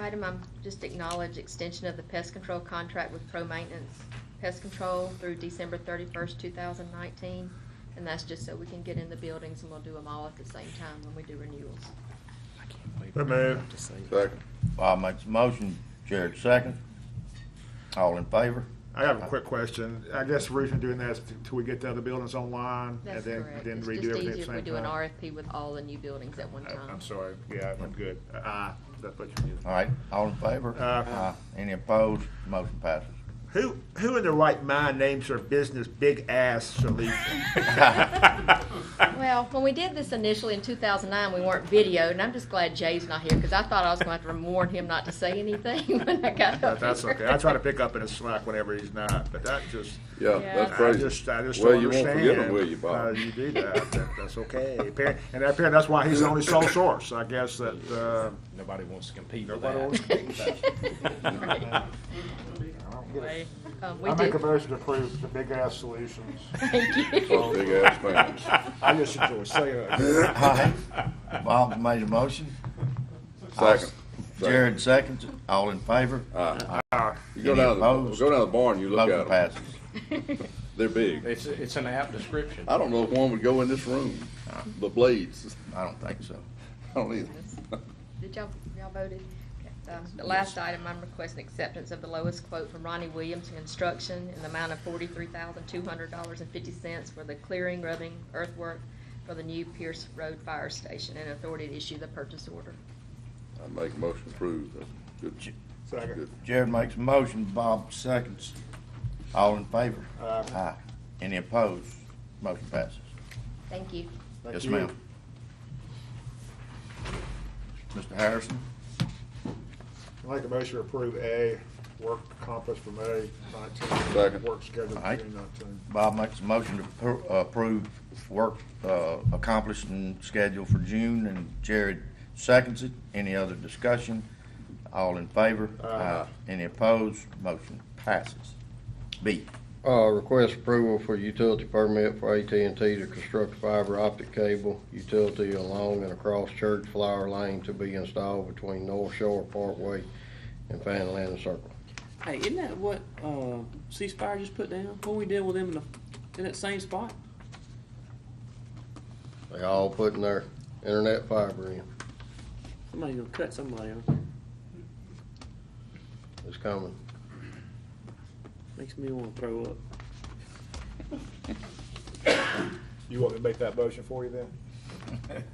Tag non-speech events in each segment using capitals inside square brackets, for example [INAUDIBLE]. item, I'm just acknowledge extension of the pest control contract with Pro Maintenance Pest Control through December thirty-first, two thousand nineteen. And that's just so we can get in the buildings and we'll do them all at the same time when we do renewals. So moved. Second. Bob makes a motion, Jared second. All in favor? I have a quick question. I guess the reason doing that is till we get the other buildings online and That's then, correct. then It's redo just everything easier at the if we same do an time. RFP with all the new buildings at one I- time. I'm sorry. Yeah, I'm good. Uh, that's what you All right, all in favor? Aye. Any opposed? Motion passes. Who, who in their right mind names their business Big Ass [LAUGHS] Solutions? Well, when we did this initially in 2009, we weren't videoed, and I'm just glad Jay's not here, because I thought I was going to have to warn him not to say anything [LAUGHS] when I got That- up That's here. okay. I [LAUGHS] try to pick up in his slack whenever he's not, but that just. Yeah, Yeah. that's I crazy. just- I just Well, don't you won't understand forget them, will you, How [LAUGHS] Bob? you do [LAUGHS] that. That- That's okay. Appar- And apparently, that's why he's the only sole source, I guess, that, uh, Nobody wants to compete with nobody that. else. Um, [LAUGHS] We I make a do, motion to approve the Big Ass Solutions. thank you. Oh, big ass fans. I just enjoy saying [LAUGHS] All it. right, Bob made a motion. Second. [LAUGHS] Jared seconds. All in favor? You go down, the- Opposed? go down the barn, you look Motion at them. passes. They're big. It's, it's an apt description. I don't know if one would go in this room, the blades. [LAUGHS] I don't think so. I don't either. Did y'all, y'all voted? Okay, um, The last item, I'm requesting acceptance of the lowest quote from Ronnie Williams Construction in the amount of forty-three thousand, two hundred dollars and fifty cents for the clearing, rubbing, earthwork for the new Pierce Road Fire Station, and authority to issue the purchase order. [LAUGHS] I make a motion to approve. That's good. Second. Good. Jared makes a motion, Bob seconds. All in favor? Aye. Any opposed? Motion passes. Thank you. Thank Yes, you. ma'am. Mr. Harrison? I Make a motion to approve A, work accomplished for May nineteen, Second. work scheduled for Aye. June nineteen. Bob makes a motion to appro- uh, approve work uh, accomplished and scheduled for June, and Jared seconds it. Any other discussion? All in favor? Aye. Any opposed? Motion passes. [LAUGHS] B, Uh, request approval for utility permit for AT&T to construct fiber optic cable utility along and across Church Flower Lane to be installed between North Shore Parkway and Fan Land Circle. Hey, isn't that what uh, C Spire just put down? What we did with them in, the, in that same spot? They all putting their internet fiber in. Somebody gonna cut somebody off. It's coming. Makes me want to throw up. You want me to make that motion for you then?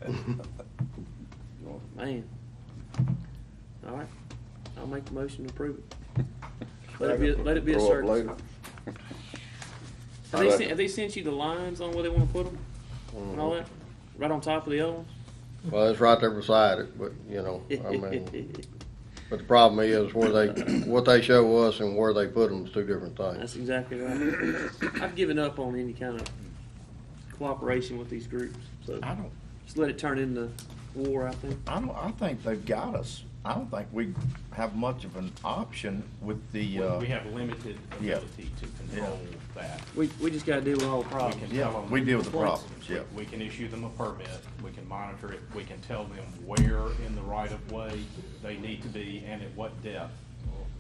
Man. All right. I'll make the motion to approve it. Let it be. A, let it be a Grow up service. later. Have they, sent, have they sent you the lines on where they want to put them and all Mhm. that? Right on top of the other ones. Well, it's right there beside it, but, you know, I [LAUGHS] mean, but the problem is where they, what they show us and where they put them is two different That's things. exactly right. I've given up on any kind of cooperation with these groups. So I don't, just let it turn into war. I think. I don't, I think they've got us. I don't think we have much of an option with the, uh, We have limited Yeah. ability to control that. We, we just got to deal with all the We problems. can Yeah, tell them- we deal with the problems, yeah. We can issue them a permit, we can monitor it, we can tell them where in the right of way they need to be and at what depth.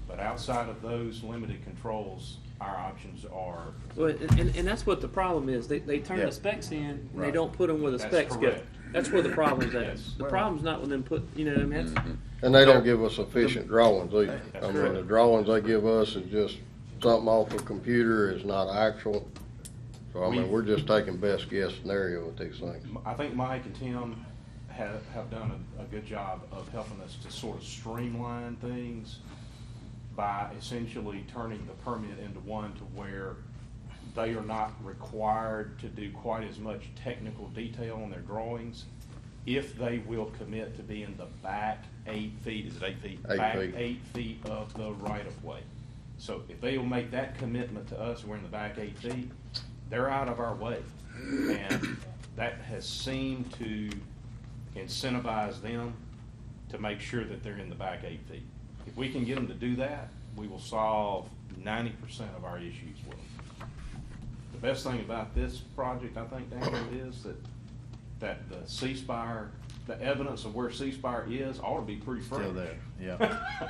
But outside of those limited controls, our options are, Well, and, and- and that's what the problem is. They, they turn Yeah. the specs in and Right. they don't put them where the That's specs correct. go. That's where the problem's at. Yes. The problem's not with them put, you know what I mean? That's- And they don't give us sufficient drawings either. I mean, the correct. drawings they give us is just something off a computer, is not actual. So I mean, We- we're just taking best guess scenario with these things. I think Mike and Tim have, have done a, a good job of helping us to sort of streamline things by essentially turning the permit into one to where they are not required to do quite as much technical detail on their drawings if they will commit to be in the back eight feet, is it eight feet? Eight Back feet. eight feet of the right-of-way. So if they will make that commitment to us, we're in the back eight feet, they're out of our way. And that has seemed to incentivize them to make sure that they're in the back eight feet. If we can get them to do that, we will solve ninety percent of our issues with them. The best thing about this project, I think, Daniel, is that, that the C Spire the evidence of where ceasefire is ought to be pretty fresh. Still there, yeah.